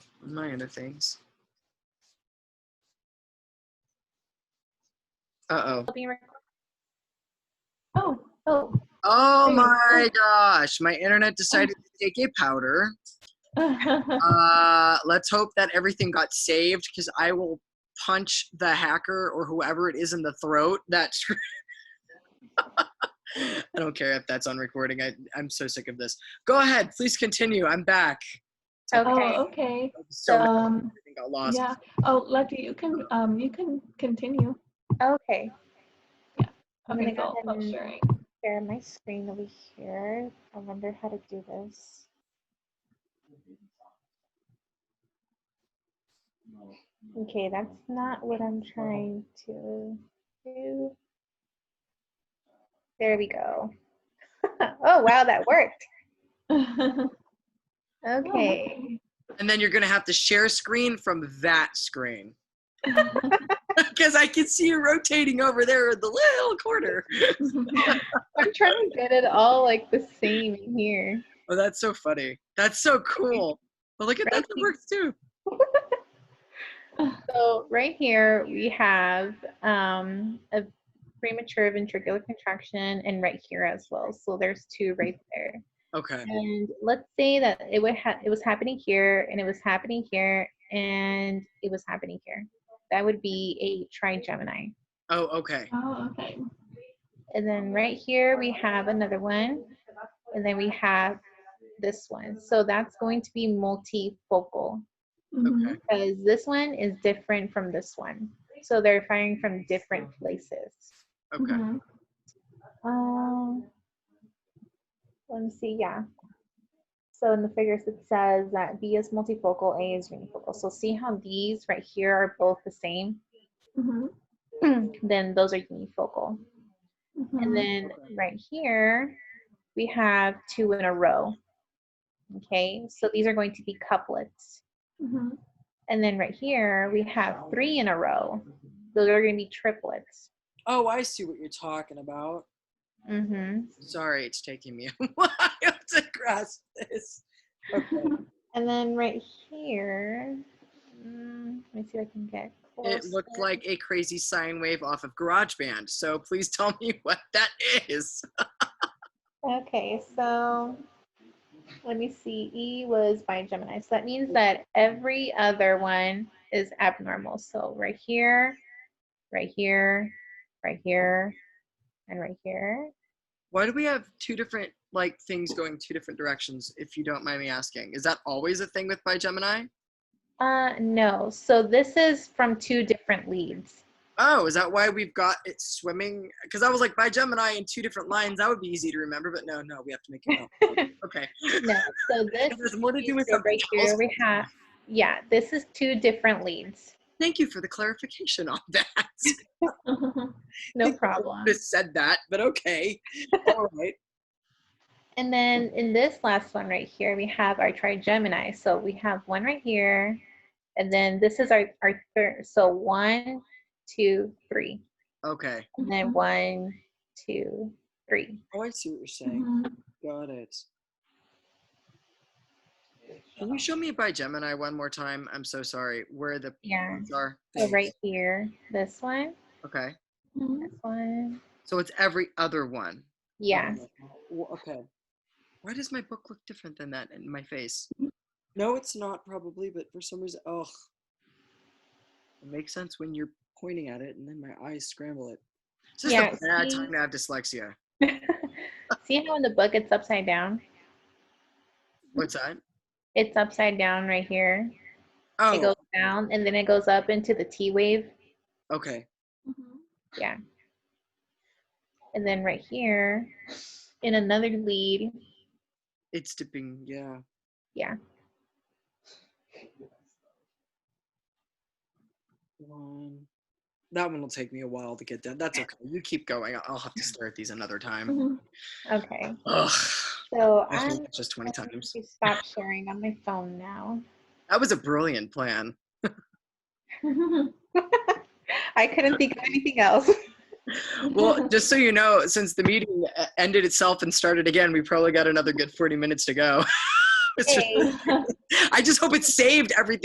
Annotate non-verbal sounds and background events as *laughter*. my other things. Uh-oh. being recorded. Oh, *laughs* oh. Oh Hey. my gosh, my internet decided to take a powder. Oh, Uh, let's hope that everything got saved because I will punch the hacker or whoever it is in the throat. *laughs* That's. I don't care if that's on recording. I, I'm so sick of this. Go ahead, please continue. I'm back. okay. Oh, okay. So much um, everything got lost. yeah. Oh, Letty, you can um, you can continue. Okay. I'm Okay, Oh, gonna go so I'll stop ahead and- sharing. Share my screen over here. I wonder how to do this. Okay, that's not what I'm trying to do. There we go. *laughs* oh wow, that worked. Okay. And then you're gonna have to share screen from that screen *laughs* because I can see you rotating over there in the little corner. *laughs* I'm trying to get it all like the same here. Oh, that's so funny. That's so cool. But look at that, that Right. works too. So right here we have um, a premature ventricular contraction and right here as well. So there's two right there. Okay. And let's say that it would ha- it was happening here and it was happening here and it was happening here. That would be a trigemini. Oh, okay. *laughs* oh, okay. And then right here we have another one and then we have this one. So that's going to be multifocal. Mhm. because this one is different from this one. So they're firing from different places. Okay. Mhm. Um, let me see. Yeah. So in the figures, it says that B is multifocal, A is unifocal. So see how these right here are both the same? Mhm. then those are unifocal. And Mhm. then right here, we have two in a row. Okay, so these are going to be couplets. Mhm. And then right here, we have three in a row. Those are going to be triplets. Oh, I see what you're talking about. hmm Sorry, it's taking me *laughs* a while to grasp this. Okay. And then right here, mm, let me see if I can get close. It looked like a crazy sine wave off of GarageBand. So please tell me *laughs* what that is. Okay, so let me see. E was by Gemini. So that means that every other one is abnormal. So right here, right here, right here, and right here. Why do we have two different like things going two different directions? If you don't mind me asking, is that always a thing with Gemini? Uh, no. So this is from two different leads. Oh, is that why we've got it swimming? Because I was like, by Gemini in two different lines, that would be easy to remember. But no, no, we have to make it. up. okay. No, *laughs* so this It has more to do with so something right here else. we have yeah, this is two different leads. Thank you for the clarification on that. No *laughs* Thank you. problem. Just said that, but okay. All right. And then in this last one right here, we have our trigemini. So we have one right here, and then this is our, our third. So one, two, three, Okay. and Mm-hmm. then one, two, three. Oh, I see what you're saying. Mhm. Got it. Can you show me by Gemini one more time? I'm so sorry. Where the Yeah. points are? So Oh, right here, this one, Okay. Mhm. this one. So it's every other one. Yeah. *laughs* Well, okay. Why does my book look different than that in my face? No, it's not probably, but for some reason, oh, it makes sense when you're pointing at it, and then my eyes scramble it. It's just Yeah, a bad see- Mm-hmm. time to have dyslexia. See how in the book it's upside down? What's that? It's upside down right here. Oh, It goes down and then it goes up into the T wave. Oh, okay. Mhm. And then right here in another lead, It's dipping. Yeah. Yeah. One. That one will take me a while to get down. That's okay. You keep going. I'll- I'll have to stare at these another time. Mm-hmm. Mhm. okay. Ugh. So I I'm think just 20 going times. to stop sharing on my phone now. That was a brilliant plan. Mhm. I couldn't think of anything else. *laughs* Well, just so you know, since the meeting uh, ended itself and started again, we probably got another good 40 minutes to go. *laughs* It's just- Hey. I just hope it saved everything.